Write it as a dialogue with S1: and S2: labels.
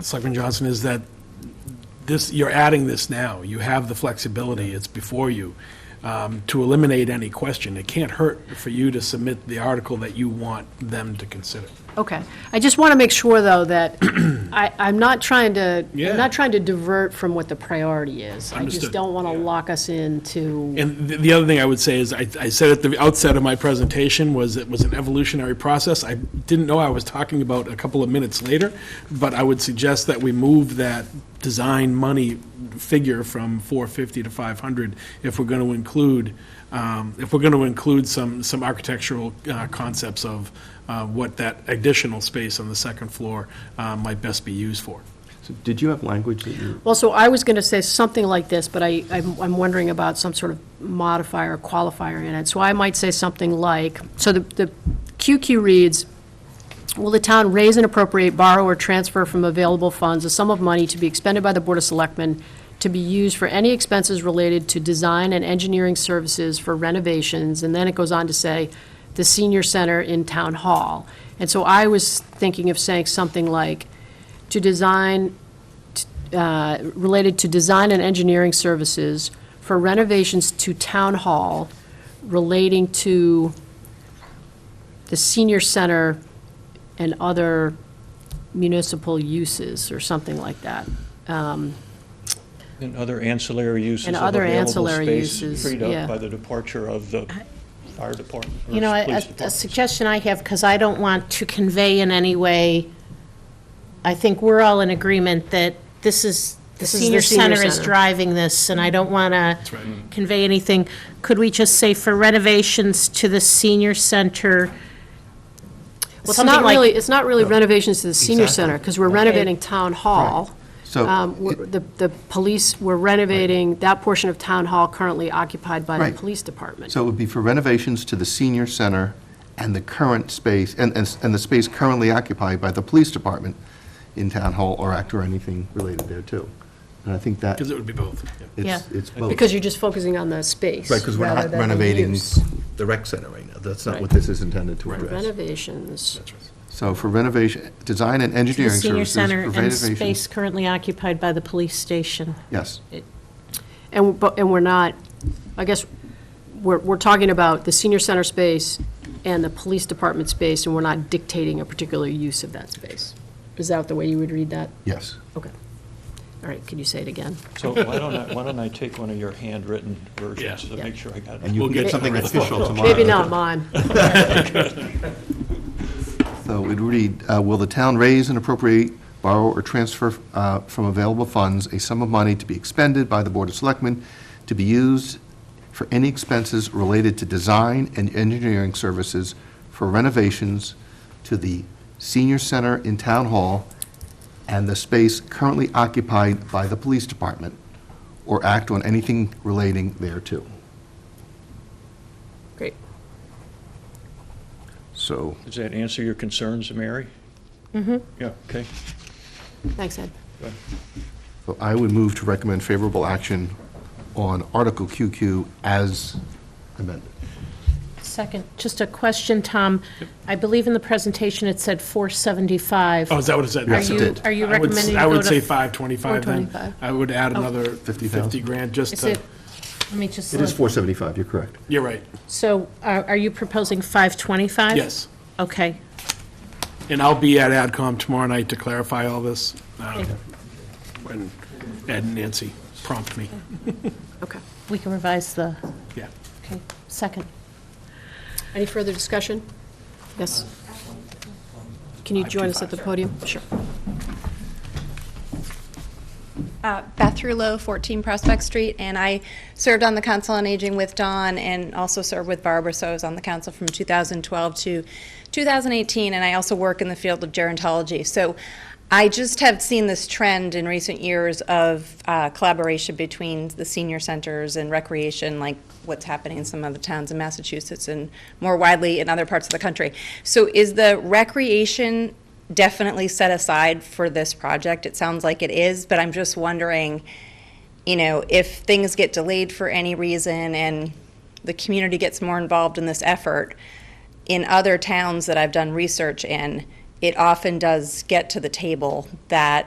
S1: Selectman Johnson, is that this, you're adding this now. You have the flexibility, it's before you, um, to eliminate any question. It can't hurt for you to submit the article that you want them to consider.
S2: Okay. I just want to make sure, though, that I, I'm not trying to,
S1: Yeah.
S2: I'm not trying to divert from what the priority is. I
S1: Understood.
S2: just don't want to
S1: Yeah.
S2: lock us into,
S1: And the, the other thing I would say is, I, I said at the outset of my presentation was it was an evolutionary process. I didn't know I was talking about a couple of minutes later, but I would suggest that we move that design money figure from four fifty to five hundred if we're gonna include, um, if we're gonna include some, some architectural, uh, concepts of, uh, what that additional space on the second floor, uh, might best be used for.
S3: So did you have language that you,
S2: well, so I was going to say something like this, but I, I'm I'm wondering about some sort of modifier or qualifier in it. So I might say something like, so the, the QQ reads, Will the town raise and appropriate, borrow, or transfer from available funds a sum of money to be expended by the Board of Selectmen to be used for any expenses related to design and engineering services for renovations? And then it goes on to say, the senior center in Town Hall. And so I was thinking of saying something like, to design, t- uh, related to design and engineering services for renovations to Town Hall relating to the senior center and other municipal uses or something like that.
S4: And other ancillary uses
S2: And
S4: of
S2: other
S4: available
S2: ancillary
S4: space
S2: uses,
S4: freed
S2: yeah.
S4: up by the departure of the fire department. or
S5: You know,
S4: police
S5: a- a
S4: department.
S5: suggestion I have, because I don't want to convey in any way, I think we're all in agreement that this is, the
S2: This is the
S5: senior
S2: senior
S5: center is
S2: center.
S5: driving this, and I don't want to convey anything. Could we just say for renovations to the senior center?
S2: Well, it's
S5: something
S2: not
S5: like-
S2: really, it's not really renovations to the senior
S3: Oh, Exactly.
S2: center, because we're renovating Town Hall.
S3: So-
S2: Um, we're- The, the police, we're renovating that portion of Town Hall currently occupied by
S3: Right.
S2: the police department.
S3: so it would be for renovations to the senior center and the current space, and, and s- and the space currently occupied by the police department in Town Hall or Act or anything related there too. And I think that,
S1: Because it would be both. yeah.
S3: it's,
S5: Yeah.
S3: it's both.
S2: Because you're just focusing on the space.
S3: Right, because we're
S2: rather
S3: not
S2: than the
S3: renovating
S2: use.
S3: the rec center right now. That's not
S2: Right.
S3: what this is intended to address.
S2: Renovations.
S3: So for renovation, design and
S5: The
S3: engineering
S5: senior
S3: services.
S5: center
S3: for
S5: and
S3: renovation-
S5: space currently occupied by the police station.
S3: Yes.
S2: And, but, and we're not, I guess, we're, we're talking about the senior center space and the police department space, and we're not dictating a particular use of that space. Is that the way you would read that?
S3: Yes.
S2: Okay. All right, could you say it again?
S4: So why don't I, why don't I take one of your handwritten versions to
S1: Yeah.
S4: make sure I got
S3: And
S4: it?
S3: you
S1: We'll
S3: can
S1: get
S3: get something official tomorrow.
S2: Maybe not mine.
S3: So it would read, uh, will the town raise and appropriate, borrow, or transfer uh, from available funds a sum of money to be expended by the Board of Selectmen to be used for any expenses related to design and engineering services for renovations to the senior center in Town Hall and the space currently occupied by the police department, or act on anything relating thereto?
S2: Great.
S3: So,
S4: Does that answer your concerns, Mary? Mm-hmm. Yeah, okay.
S2: Thanks, Ed.
S3: so I would move to recommend favorable action on Article QQ as amended.
S5: Second, just a question, Tom. I believe in the presentation it said 475.
S1: Oh, is that what it said?
S3: Yes, it
S1: Okay.
S3: did.
S5: Are you
S1: I would-
S5: recommending you
S1: I
S5: go
S1: would
S5: to-
S1: say 525 then.
S2: 425.
S1: I would add another
S3: 50,000.
S1: 50 grand, just
S5: Oh. Is
S1: to,
S5: it, let me just.
S3: It is
S5: look.
S3: 475, you're correct.
S1: you're right,
S5: So uh, are are you proposing 525?
S1: yes.
S5: Okay.
S1: And I'll be at AdCom tomorrow night to clarify all this. um, When Ed and Nancy prompt me,
S2: Okay.
S5: We can revise the,
S1: yeah.
S5: okay, second.
S2: Any further discussion? Yes? Can you join us at the podium? Sure.
S6: Uh, Beth Rulo, 14 Prospect Street, and I served on the Council on Aging with Dawn and also served with Barbara, so I was on the council from 2012 to 2018, and I also work in the field of gerontology. So I just have seen this trend in recent years of uh, collaboration between the senior centers and recreation, like what's happening in some other towns in Massachusetts and more widely in other parts of the country. So is the recreation definitely set aside for this project. It sounds like it is, but I'm just wondering, you know, if things get delayed for any reason and the community gets more involved in this effort, in other towns that I've done research in, it often does get to the table that